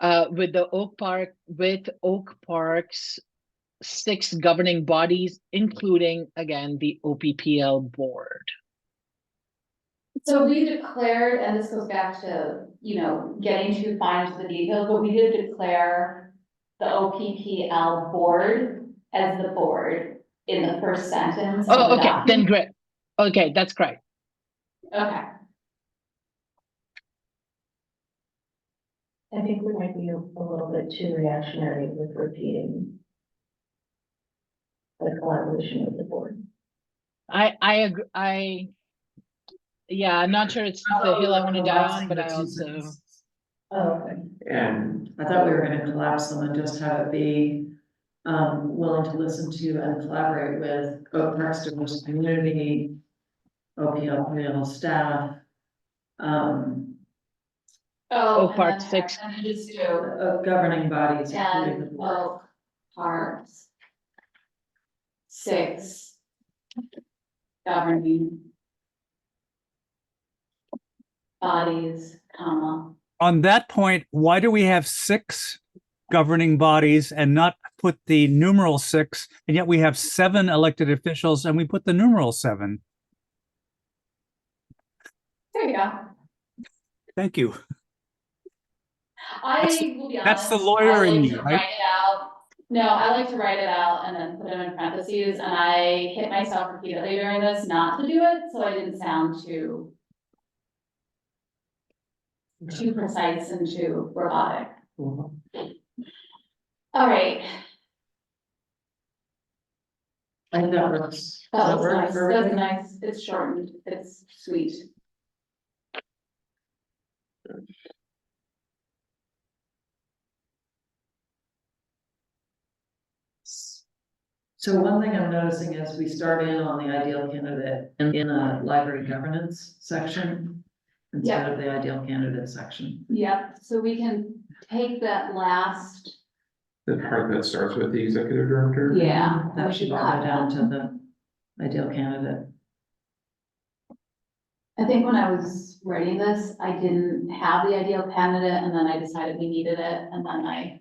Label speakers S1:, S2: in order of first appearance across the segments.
S1: uh, with the Oak Park, with Oak Park's six governing bodies, including, again, the OPPL board.
S2: So we declared, and this goes back to, you know, getting too fine to the details, but we did declare the OPPL board as the board in the first sentence. of
S1: Oh,
S2: the
S1: okay, then
S2: document.
S1: great. Okay, that's great.
S2: Okay,
S3: I think we might be a a little bit too reactionary with repeating the collaboration with the board.
S1: I, I, ag- I, yeah, I'm not sure it's the hill I want to die on, but I also,
S3: Oh, okay.
S4: And I thought we were gonna collapse them and just have it be um willing to listen to and collaborate with Oak Park's diverse community. OPL, staff. Um,
S2: oh.
S1: Oh,
S2: and
S1: part
S2: then-
S1: six.
S2: And then just do,
S4: uh, governing bodies. including the
S2: and,
S4: board.
S2: well, parts. Six. Governing. Bodies, comma,
S5: On that point, why do we have six governing bodies and not put the numeral six? And yet we have seven elected officials and we put the numeral seven.
S2: there you go.
S5: Thank you. That's-
S2: I will be honest.
S5: that's the
S2: I
S5: lawyer in
S2: like
S5: you,
S2: to
S5: right?
S2: Write it out. No, I like to write it out and then put it in parentheses, and I hit myself repeatedly during this not to do it, so I didn't sound too. Too precise and too robotic. All right,
S4: I think that works. Does
S2: that was
S4: work
S2: Oh, nice,
S4: for
S2: that was
S4: everybody?
S2: nice, it's shortened, it's sweet.
S4: So one thing I'm noticing is we start in on the ideal candidate in, in a library governance section instead of the ideal candidate section.
S2: Yep, so we can take that last,
S6: The part that starts with the executive director?
S2: yeah, we
S4: That
S2: should
S4: should
S2: cut
S4: go down
S2: that.
S4: to the ideal candidate.
S2: I think when I was writing this, I didn't have the ideal candidate and then I decided we needed it and then I,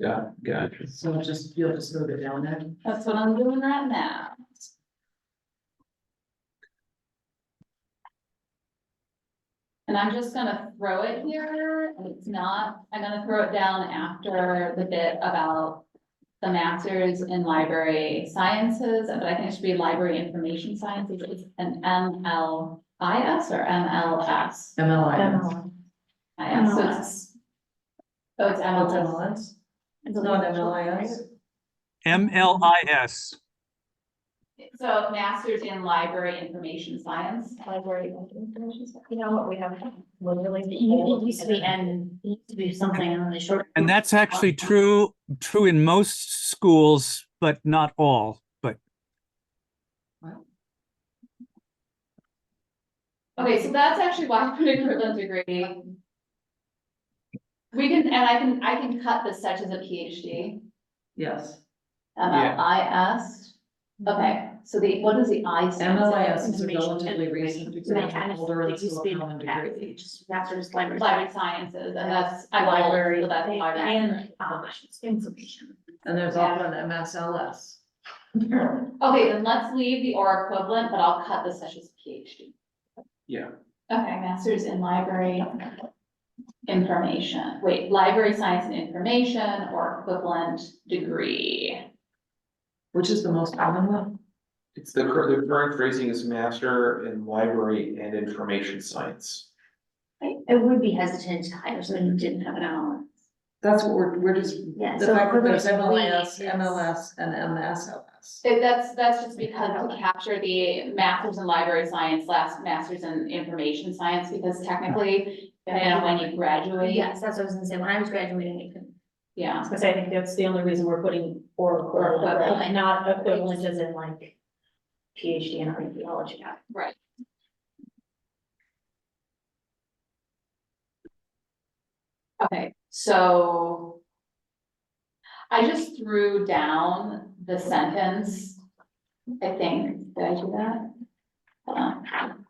S6: Yeah, gotcha.
S4: So just, you'll just move it down there.
S2: that's what I'm doing right now. And I'm just gonna throw it here, and it's not, I'm gonna throw it down after the bit about the masters in library sciences, but I think it should be library information sciences, it's an M L I S or M L S.
S4: MLIS.
S3: Um,
S2: I am, so it's. So it's MLS.
S4: MLS? It's not MLIS.
S5: MLIS.
S2: So masters in library information science.
S3: Library. You know what, we have literally.
S7: It used to be N, it used to be something really short.
S5: And that's actually true, true in most schools, but not all. But
S2: Okay, so that's actually why I put equivalent degree. We can, and I can, I can cut this such as a PhD,
S4: Yes.
S2: MLIS. Um, Okay, so the, what is the I stand for?
S4: MLIS is a
S7: Information
S4: relatively recent degree,
S7: Like, and
S4: older than
S7: it used to be
S4: common degree.
S7: just Master's library.
S2: Library sciences, and that's, I library, so that's library.
S7: And, um, information.
S4: And there's also an MSLS.
S2: Okay, then let's leave the or equivalent, but I'll cut this such as a PhD.
S6: Yeah.
S2: Okay, masters in library information, wait, library science and information or equivalent degree.
S4: Which is the most common one?
S6: It's the current, the current phrasing is master in library and information science.
S7: I, I would be hesitant to hire someone who didn't have an hour.
S4: That's what we're, we're just,
S7: Yeah.
S4: the
S7: so
S4: fact that there's
S7: equivalent
S4: MLIS,
S7: degree is-
S4: MLS, and MSLS.
S2: So That's, that's just because we capture the masters in library science, last masters in information science, because technically, depending on when you graduate,
S7: Yes, that's what I was gonna say, when I was graduating, it couldn't.
S2: yeah.
S3: Because I think that's the only reason we're putting or
S2: equivalent,
S7: right?
S3: not
S7: equivalent
S3: as in like PhD in archaeology.
S2: Right. Okay, so. I just threw down the sentence, I think, did I do that? Hold on.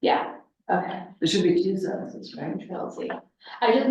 S2: Yeah, okay,
S4: There should be two sentences, right?
S2: control Z. I just